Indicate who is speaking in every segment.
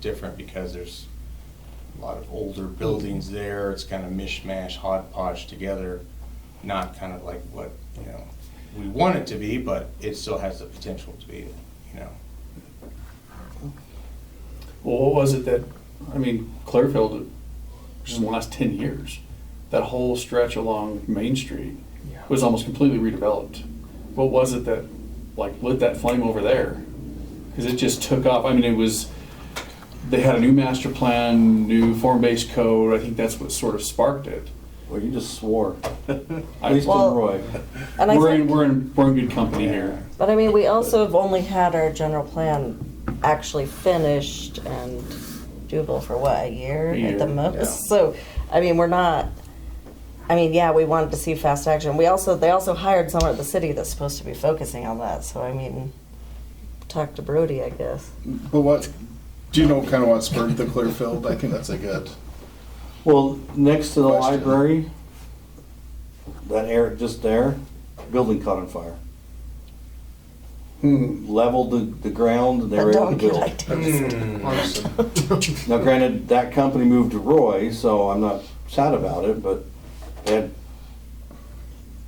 Speaker 1: different because there's a lot of older buildings there, it's kind of mishmash, hodgepodge together, not kind of like what, you know, we want it to be, but it still has the potential to be, you know.
Speaker 2: Well, what was it that, I mean, Clearfield, just in the last ten years, that whole stretch along Main Street was almost completely redeveloped. What was it that, like, lit that flame over there? Because it just took off. I mean, it was, they had a new master plan, new form-based code. I think that's what sort of sparked it.
Speaker 3: Well, you just swore.
Speaker 2: I-
Speaker 3: Least
Speaker 4: Well-
Speaker 3: in Roy.
Speaker 4: And I
Speaker 2: We're in,
Speaker 4: think,
Speaker 2: we're in, we're in good company here.
Speaker 4: but I mean, we also have only had our general plan actually finished and doable for what, a
Speaker 2: A
Speaker 4: year at the
Speaker 2: year,
Speaker 1: yeah.
Speaker 4: most? So, I mean, we're not, I mean, yeah, we wanted to see fast action. We also, they also hired someone at the city that's supposed to be focusing on that, so I mean, talk to Brody, I guess.
Speaker 5: But what, do you know kind of what spurred the Clearfield? I think that's a good.
Speaker 3: Well, next to the
Speaker 5: Question.
Speaker 3: library, that area just there, building caught on fire. Leveled the, the ground and they
Speaker 4: But
Speaker 3: were able to
Speaker 4: don't get
Speaker 3: build.
Speaker 4: ideas.
Speaker 3: Now granted, that company moved to Roy, so I'm not sad about it, but they had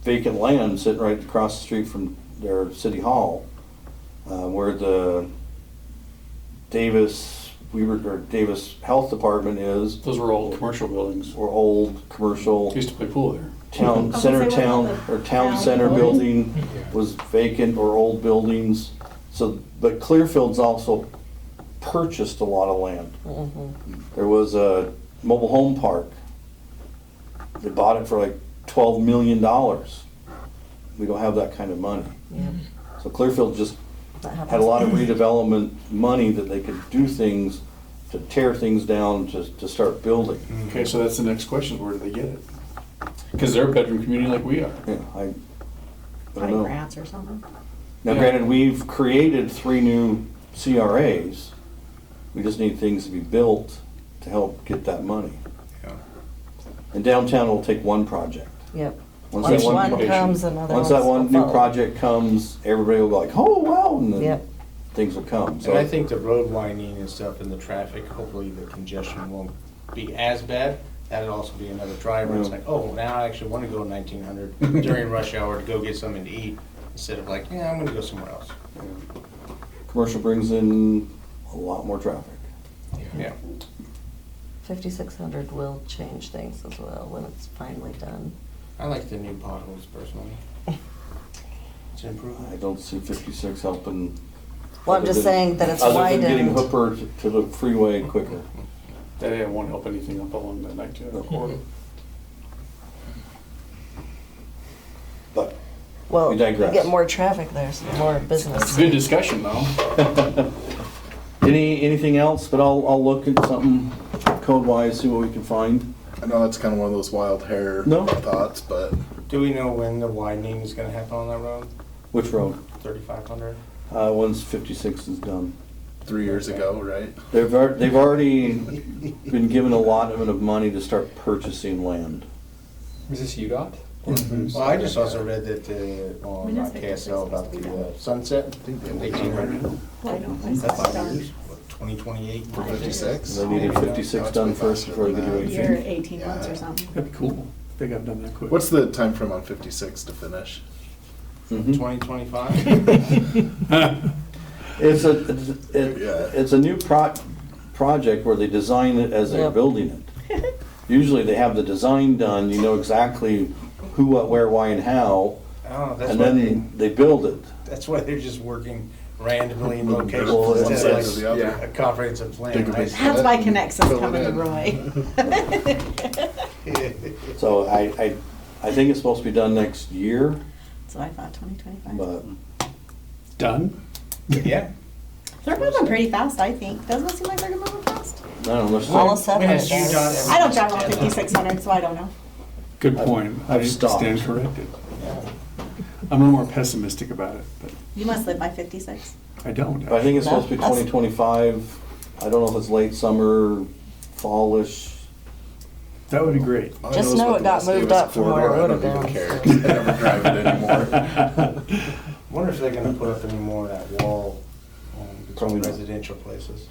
Speaker 3: vacant land sitting right across the street from their city hall, uh, where the Davis, Weaver, or Davis Health Department is,
Speaker 2: Those were old commercial buildings.
Speaker 3: or old commercial
Speaker 2: We used to play pool there.
Speaker 3: town,
Speaker 6: Okay,
Speaker 3: center
Speaker 6: so what
Speaker 3: town,
Speaker 6: about the
Speaker 3: or town
Speaker 6: town
Speaker 3: center
Speaker 6: building?
Speaker 3: building was vacant or old buildings. So, but Clearfield's also purchased a lot of land. There was a mobile home park. They bought it for like twelve million dollars. We don't have that kind of money.
Speaker 4: Yeah,
Speaker 3: So Clearfield just
Speaker 4: that
Speaker 3: had a
Speaker 4: happens.
Speaker 3: lot of redevelopment money that they could do things, to tear things down, to, to start building.
Speaker 2: Okay, so that's the next question. Where do they get it? Because they're a bedroom community like we are.
Speaker 3: Yeah, I, I don't
Speaker 6: Like
Speaker 3: know.
Speaker 6: grants or something?
Speaker 3: Now,
Speaker 2: Yeah.
Speaker 3: granted, we've created three new CRAs. We just need things to be built to help get that money.
Speaker 1: Yeah.
Speaker 3: And downtown will take one project.
Speaker 4: Yep.
Speaker 3: Once that
Speaker 4: Once
Speaker 3: one
Speaker 4: one
Speaker 3: pro-
Speaker 4: comes, another
Speaker 3: Once that one
Speaker 4: one's
Speaker 3: new
Speaker 4: gonna follow.
Speaker 3: project comes, everybody will be like, oh, wow, and then
Speaker 4: Yep.
Speaker 3: things will come.
Speaker 1: And I
Speaker 3: So,
Speaker 1: think the road widening and stuff and the traffic, hopefully the congestion won't be as bad. That'd also be another driver. It's
Speaker 3: Yeah.
Speaker 1: like, oh, now I actually want to go nineteen hundred during rush hour to go get something to eat instead of like, yeah, I'm gonna go somewhere else.
Speaker 3: commercial brings in a lot more traffic.
Speaker 1: Yeah.
Speaker 4: 5600 will change things as well when it's finally done.
Speaker 1: I like the new potholes personally. It's an improvement.
Speaker 3: I don't see fifty-six helping.
Speaker 4: Well, I'm
Speaker 3: other
Speaker 4: just
Speaker 3: than-
Speaker 4: saying that it's
Speaker 3: Other than getting
Speaker 4: widened.
Speaker 3: Hooper to- to the freeway quicker.
Speaker 2: That didn't want to help anything up along that 1900 corridor.
Speaker 3: But
Speaker 4: Well,
Speaker 3: We
Speaker 4: you
Speaker 3: digress.
Speaker 4: get more traffic there, so more business.
Speaker 2: Good discussion, though.
Speaker 3: Any, anything else, but I'll, I'll look at something code-wise, see what we can find.
Speaker 5: I know that's kind of one of those wild hair
Speaker 3: No.
Speaker 5: thoughts, but
Speaker 1: Do we know when the widening is gonna happen on that road?
Speaker 3: Which road?
Speaker 1: Thirty-five hundred?
Speaker 3: Uh, once fifty-six is done.
Speaker 5: three years ago, right?
Speaker 3: They've, al- they've already been given a lot of money to start purchasing land.
Speaker 7: Is this UDOT?
Speaker 1: Well, I just also read that the, on
Speaker 6: When is it that they're
Speaker 1: KSL about
Speaker 6: supposed to be
Speaker 1: the
Speaker 6: done?
Speaker 1: uh, sunset, eighteen hundred.
Speaker 6: I don't
Speaker 1: Is that
Speaker 6: think
Speaker 1: five
Speaker 6: so.
Speaker 1: years? Twenty twenty-eight?
Speaker 5: For fifty-six?
Speaker 3: They needed fifty-six done first before they could do
Speaker 6: A year,
Speaker 3: anything.
Speaker 6: eighteen months or something.
Speaker 2: That'd be cool. I think I've done that quick.
Speaker 5: What's the time frame on fifty-six to finish?
Speaker 3: Mhm.
Speaker 1: Twenty twenty-five?
Speaker 3: It's a, it's
Speaker 5: Yeah.
Speaker 3: a- it's a new pro, project where they design it as they're
Speaker 4: Yep.
Speaker 3: building it. Usually they have the design done, you know exactly who, what, where, why, and how,
Speaker 1: Oh, that's
Speaker 3: and
Speaker 1: why they,
Speaker 3: then they build it.
Speaker 1: that's why they're just working randomly in
Speaker 3: Well,
Speaker 1: locations
Speaker 3: it's-
Speaker 5: One side
Speaker 1: instead
Speaker 5: to
Speaker 1: of
Speaker 5: the
Speaker 1: like
Speaker 5: other.
Speaker 1: a comprehensive plan,
Speaker 5: Think of it.
Speaker 1: right?
Speaker 6: That's why Connexus
Speaker 5: Fill it
Speaker 6: coming to
Speaker 5: in.
Speaker 6: Roy.
Speaker 3: So I, I, I think it's supposed to be done next year,
Speaker 6: So I thought twenty twenty-five.
Speaker 3: but
Speaker 2: Done?
Speaker 1: Yeah.
Speaker 6: They're moving pretty fast, I think. Doesn't it seem like they're moving fast?
Speaker 3: I don't know. there's-
Speaker 4: All of a sudden,
Speaker 1: When
Speaker 4: it
Speaker 1: is you
Speaker 4: does.
Speaker 1: done?
Speaker 6: I don't drive on fifty-six hundred, so I don't know.
Speaker 2: Good point.
Speaker 3: I've
Speaker 2: I
Speaker 3: stopped.
Speaker 2: stand corrected. I'm a little more pessimistic about it, but
Speaker 6: You must live by fifty-six.
Speaker 2: I don't.
Speaker 3: I think it's supposed to be
Speaker 4: No, that's-
Speaker 3: twenty twenty-five. I don't know if it's late summer, fallish.
Speaker 2: That would be great.
Speaker 5: All I
Speaker 4: Just
Speaker 5: is
Speaker 4: know
Speaker 5: what
Speaker 4: it
Speaker 5: the
Speaker 4: got
Speaker 5: Las
Speaker 4: moved
Speaker 5: Vegas
Speaker 4: up from where it
Speaker 5: corridor, I
Speaker 4: would've
Speaker 5: don't even
Speaker 4: been,
Speaker 5: care. I never drive it anymore.
Speaker 1: Wonder if they're gonna put up any more of that wall, um, between
Speaker 3: Probably not.
Speaker 1: residential places?